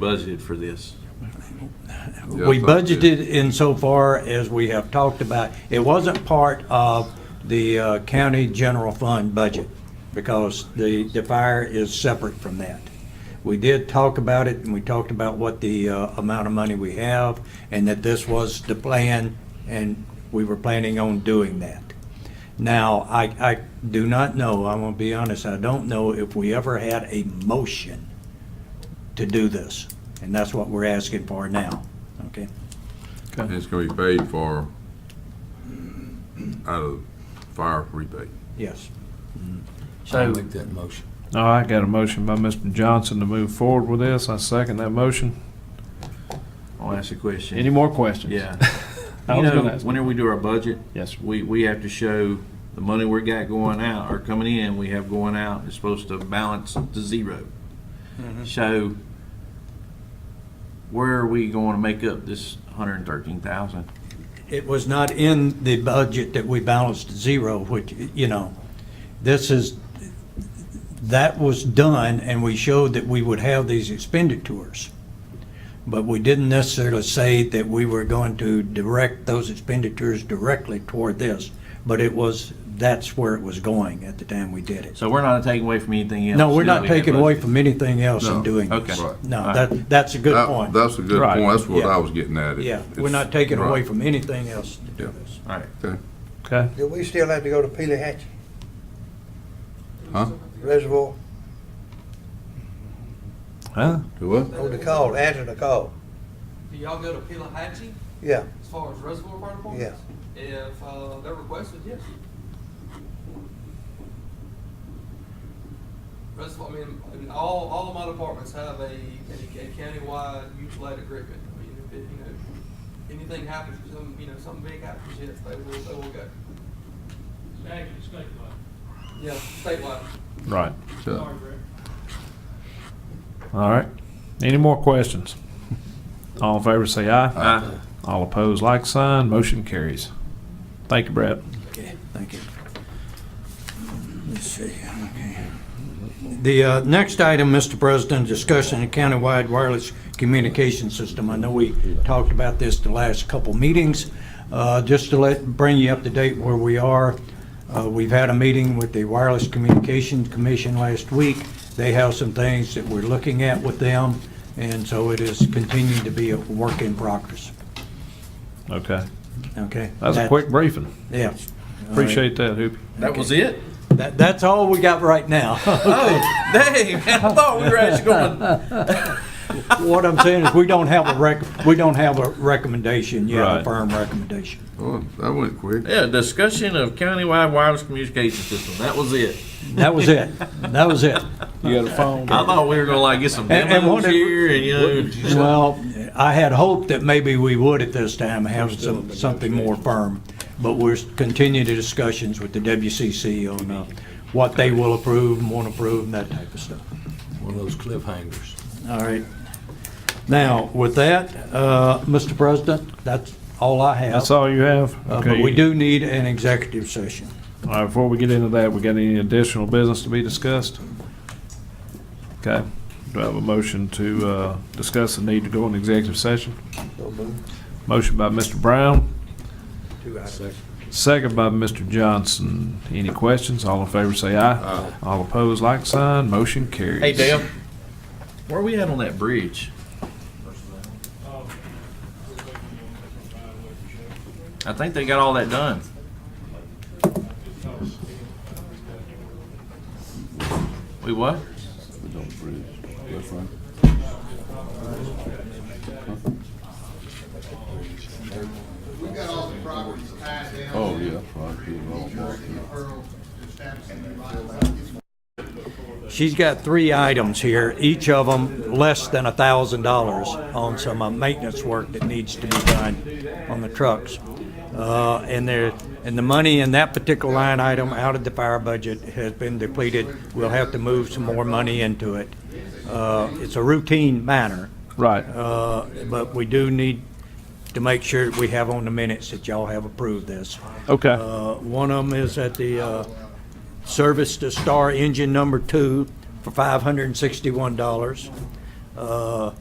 budgeted for this. Yeah, We I thought it did. budgeted insofar as we have talked about, it wasn't part of the uh, county general fund budget because the, the fire is separate from that. We did talk about it and we talked about what the uh, amount of money we have and that this was the plan and we were planning on doing that. Now, I, I do not know, I'm gonna be honest, I don't know if we ever had a motion to do this. And that's what we're asking for now, okay? And it's gonna be paid for out of fire rebate. Yes. I'll So, make that motion. all right, got a motion by Mr. Johnson to move forward with this. I second that motion. I'll ask a question. Any more questions? Yeah. I You was know, gonna ask. whenever we do our budget, Yes, sir. we, we have to show the money we got going out or coming in, we have going out, it's supposed to balance to zero. Mm-hmm. So where are we going to make up this hundred and thirteen thousand? It was not in the budget that we balanced zero, which, you know, this is, that was done, and we showed that we would have these expenditures. But we didn't necessarily say that we were going to direct those expenditures directly toward this, but it was, that's where it was going at the time we did it. So we're not taking away from anything else. No, we're not that we had taking away budgeted. from anything else in No, doing this. okay. Right. No, that, that's a good That- point. That's a good Right. point, that's what Yeah. I was getting at. It- Yeah, we're it's- not taking away right. from anything else to do Yeah. this. All right. Okay, Okay, Do we still have to go to Pele Hatch huh? Reservoir huh? Do what? on the call, answer the call? Do y'all go to Pilahatchee Yeah, as far as reservoir part appointments? If uh, they're requested, yes. Reservoir, I mean, and all, all of my departments have a, a a countywide mutual aid agreement. I mean, if, it- you know, anything happens, some, you know, something big happens, yes, they will, they will go. Yeah, statewide. Right. So, All right. Any more questions? All in favor, say aye. Aye. All opposed, like sign. Motion carries. Thank you, Brett. Okay, thank you. Let's see, okay. The uh, next item, Mr. President, discussion of countywide wireless communication system. I know we talked about this the last couple meetings. Uh, Just to let, bring you up to date where we are, uh, we've had a meeting with the Wireless Communications Commission last week. They have some things that we're looking at with them, and so it is continuing to be a work in progress, Okay. okay? That was a quick briefing. Yeah. Appreciate that, Hoopy. That was it? That, that's all we got right now. Oh, dang, I thought we were actually going to What I'm saying is, we don't have a rec, we don't have a recommendation yet, a Right. firm recommendation. oh, that went quick. Yeah, discussion of countywide wireless communication system. That was it. That was it. That was it. You got a phone? I thought we were gonna like get some And- and what demos did- here and you know. Well, I had hoped that maybe we would at this time have some, something more firm, but we're continuing the discussions with the WCC on, uh, what they will approve and won't approve and that type of stuff. One of those cliffhangers. All right. Now, with that, uh, Mr. President, that's all I have. That's all you have? Uh, But we do need an executive session. All right, before we get into that, we got any additional business to be discussed? Okay. Do I have a motion to uh, discuss the need to go into executive session? Motion by Mr. Brown, second by Mr. Johnson. Any questions? All in favor, say aye. All opposed, like sign. Motion carries. Hey Dale, where we at on that bridge? I think they got all that done. We what? Oh, yeah, right. She's got three items here, each of them less than $1,000 on some uh, maintenance work that needs to be done on the trucks. Uh, And there, and the money in that particular line item out of the fire budget has been depleted. We'll have to move some more money into it. Uh, It's a routine matter, Right. uh, but we do need to make sure that we have on the minutes that y'all have approved this. Okay. Uh, One of them is at the uh, service to Star Engine Number Two for $561. Uh,